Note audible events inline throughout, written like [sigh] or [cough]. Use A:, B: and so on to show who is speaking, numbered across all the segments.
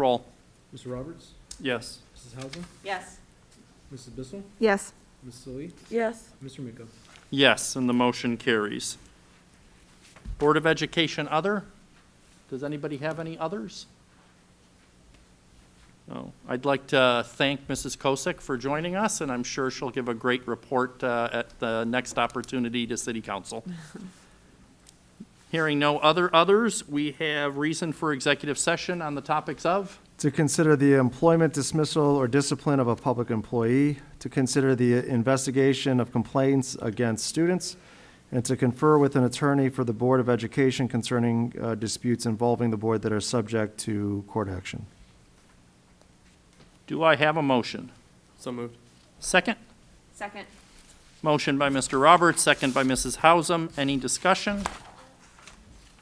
A: Roll.
B: Mr. Roberts,
A: Yes.
B: Mrs. Hausum,
C: Yes.
B: Mrs. Bissell,
D: Yes.
B: Mrs. Lee,
D: Yes.
B: Mr. Miko.
A: Yes, and the motion carries. Board of Education other? Does anybody have any others? No. I'd like to thank Mrs. Kosick for joining us, and I'm sure she'll give a great report uh, at the next opportunity to City
B: [laughs]
A: Council. Hearing no other others, we have reason for executive session on the topics of?
E: To consider the employment dismissal or discipline of a public employee, to consider the investigation of complaints against students, and to confer with an attorney for the Board of Education concerning uh, disputes involving the board that are subject to court action.
A: Do I have a motion?
B: So moved.
A: Second?
C: Second.
A: Motion by Mr. Roberts, second by Mrs. Hausum. Any discussion?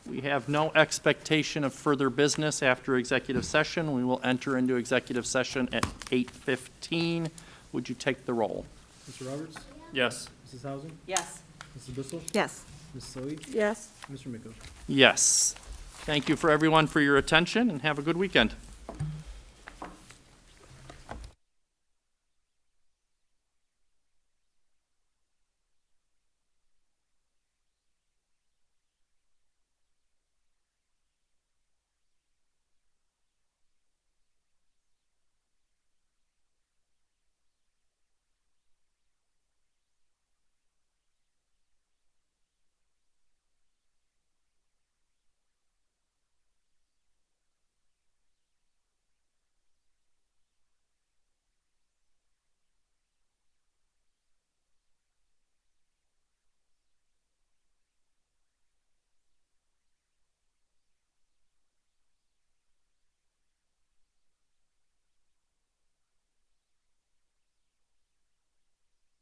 A: We have no expectation of further business after executive session. We will enter into executive session at 8:15. Would you take the roll?
B: Mr. Roberts,
A: Yes.
B: Mrs. Hausum,
C: Yes.
B: Mrs. Bissell,
D: Yes.
B: Mrs. Lee,
D: Yes.
B: Mr. Miko.
A: Yes. Thank you for everyone for your attention, and have a good weekend.